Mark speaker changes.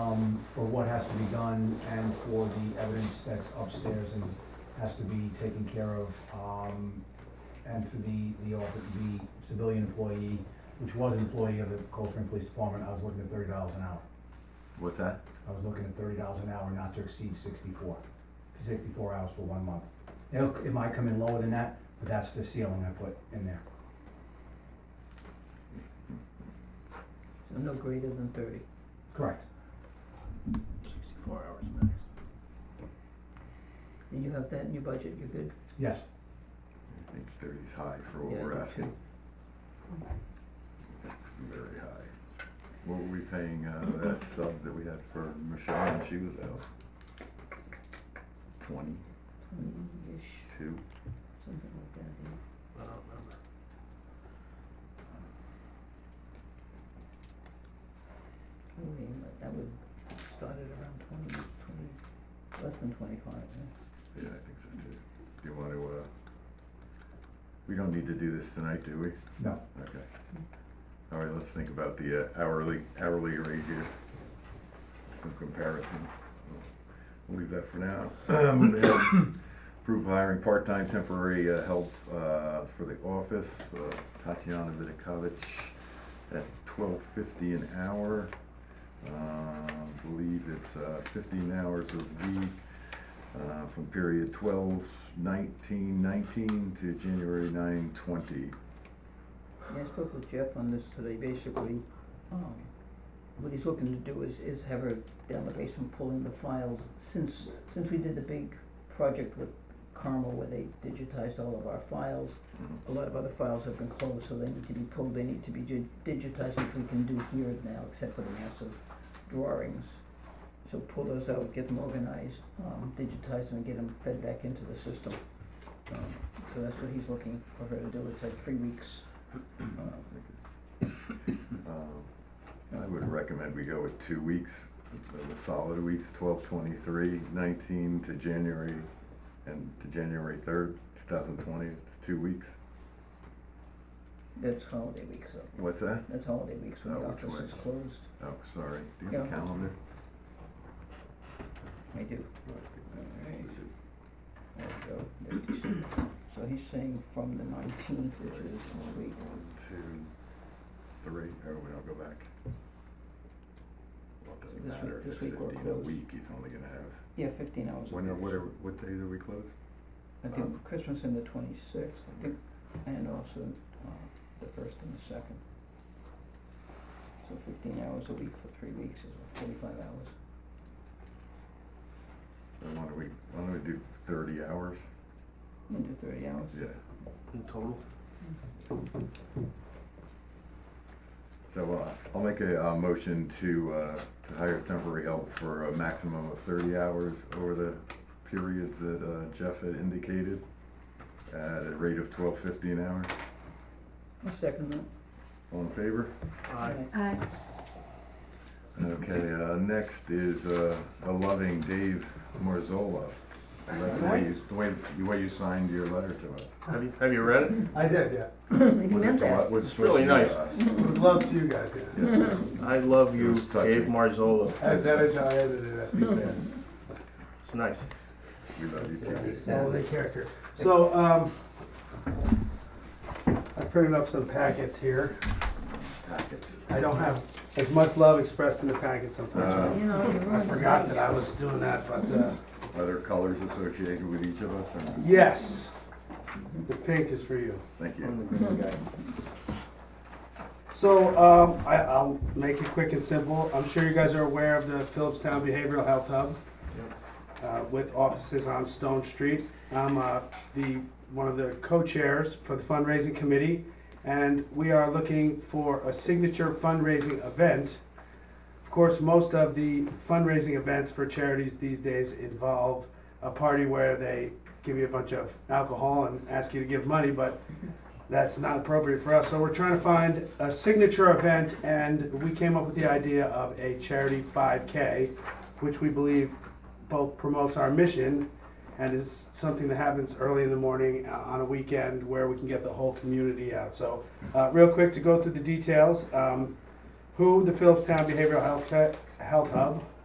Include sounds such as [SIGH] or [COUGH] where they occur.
Speaker 1: um, for what has to be done and for the evidence that's upstairs and has to be taken care of. Um, and for the, the, offi- the civilian employee, which was an employee of the Cold Spring Police Department, I was looking at thirty dollars an hour.
Speaker 2: What's that?
Speaker 1: I was looking at thirty dollars an hour, not to exceed sixty-four. Sixty-four hours for one month. It'll, it might come in lower than that, but that's the ceiling I put in there.
Speaker 3: So no greater than thirty.
Speaker 1: Correct.
Speaker 2: Sixty-four hours max.
Speaker 3: And you have that in your budget, you're good?
Speaker 1: Yes,
Speaker 2: I think thirty's high for what
Speaker 3: Yeah,
Speaker 2: we're
Speaker 3: that's
Speaker 2: asking. That's Very high. What were we paying, uh, that sub that we had for Michelle when she was out? Twenty-two?
Speaker 3: Twenty-ish, something like that, yeah.
Speaker 4: I don't remember.
Speaker 3: I mean, like, that would start at around twenty, twenty, less than twenty-five, yeah.
Speaker 2: Yeah, I think so too. Do you wanna, uh, we don't need to do this tonight, do we?
Speaker 1: no,
Speaker 2: Okay. All right, let's think about the uh, hourly, hourly rate here. Some comparisons. We'll leave that for now. [CLEARS THROAT] Um, we have Approve hiring part-time temporary uh, help uh, for the office, uh, Tatiana Vidakovich at twelve fifty an hour. Um, Believe it's uh, fifteen hours a week uh, from period twelve nineteen nineteen to January nine twenty.
Speaker 3: Yeah, I spoke with Jeff on this today, basically, um, what he's looking to do is, is have her down the basement pulling the files. Since, since we did the big project with Carmel where they digitized all of our files,
Speaker 2: Mm-hmm.
Speaker 3: a lot of other files have been closed, so they need to be pulled, they need to be dig- digitized, which we can do here now, except for the massive drawings. So pull those out, get them organized, um, digitize them, and get them fed back into the system. Um, So that's what he's looking for her to do, it's like three weeks.
Speaker 2: Uh, Um, I would recommend we go with two weeks, uh, the solid weeks, twelve twenty-three, nineteen to January, and to January third, two thousand twenty, it's two weeks.
Speaker 3: That's holiday week, so,
Speaker 2: What's that?
Speaker 3: that's holiday weeks when the
Speaker 2: Oh, which
Speaker 3: office is
Speaker 2: way?
Speaker 3: closed.
Speaker 2: Oh, sorry, do you have a
Speaker 3: Yeah.
Speaker 2: calendar?
Speaker 3: I do. Alright. There we go. There's December. So he's saying from the nineteenth, which is this week,
Speaker 2: One, two, three, oh, we don't go back. Well, it doesn't
Speaker 3: This week-
Speaker 2: matter, if
Speaker 3: this
Speaker 2: it's
Speaker 3: week we're
Speaker 2: fifteen a
Speaker 3: closed.
Speaker 2: week, he's only gonna have,
Speaker 3: yeah, fifteen hours. a
Speaker 2: when, are-
Speaker 3: week.
Speaker 2: what are, what days are we closed?
Speaker 3: I
Speaker 2: Um,
Speaker 3: think Christmas and the twenty-sixth, I think, and also, uh, the first and the second. So fifteen hours a week for three weeks is what, forty-five hours.
Speaker 2: Then why don't we, why don't we do thirty hours?
Speaker 3: You can do thirty hours.
Speaker 2: Yeah,
Speaker 4: In total?
Speaker 2: So uh, I'll make a uh, motion to uh, to hire temporary help for a maximum of 30 hours over the periods that uh, Jeff had indicated at a rate of 12.50 an hour.
Speaker 3: I'll second that.
Speaker 2: All in favor?
Speaker 4: Aye.
Speaker 5: Aye.
Speaker 2: Okay, uh, next is uh, a loving Dave Morzola. I like The way you- the way, the way you signed your letter to us.
Speaker 4: Have you, have you read it?
Speaker 6: I did, yeah.
Speaker 3: He
Speaker 2: Was it
Speaker 3: meant
Speaker 2: to
Speaker 3: that.
Speaker 2: us- was
Speaker 4: It's
Speaker 2: supposed to
Speaker 4: really
Speaker 2: be
Speaker 4: nice.
Speaker 2: us.
Speaker 6: It was love to you guys,
Speaker 4: [LAUGHS]
Speaker 6: yeah.
Speaker 2: Yeah.
Speaker 4: I love
Speaker 2: It
Speaker 4: you,
Speaker 2: was touching.
Speaker 4: Dave Marzolo.
Speaker 6: That- That is how I edited it. Yeah.
Speaker 4: It's nice.
Speaker 2: We love you too.
Speaker 6: All the character. So, um, I printed up some packets here.
Speaker 2: Packets.
Speaker 6: I don't have as much love expressed in the packets unfortunately.
Speaker 3: You know, you
Speaker 6: I
Speaker 3: ruined the
Speaker 6: forgot
Speaker 3: night.
Speaker 6: that I was doing that, but, uh,
Speaker 2: Are there colors associated with each of us? or no?
Speaker 6: yes. The pink is for you.
Speaker 2: Thank you.
Speaker 4: I'm the green guy.
Speaker 6: So, um, I, I'll make it quick and simple. I'm sure you guys are aware of the Phillipstown Behavioral Health Hub. Uh, with offices on Stone Street. I'm, uh, the, one of the co-chairs for the fundraising committee. And we are looking for a signature fundraising event. Of course, most of the fundraising events for charities these days involve a party where they give you a bunch of alcohol and ask you to give money, but that's not appropriate for us. So we're trying to find a signature event, and we came up with the idea of a charity 5K, which we believe both promotes our mission and is something that happens early in the morning uh, on a weekend where we can get the whole community out. So, uh, real quick to go through the details um, who the Phillipstown Behavioral Health, Health Hub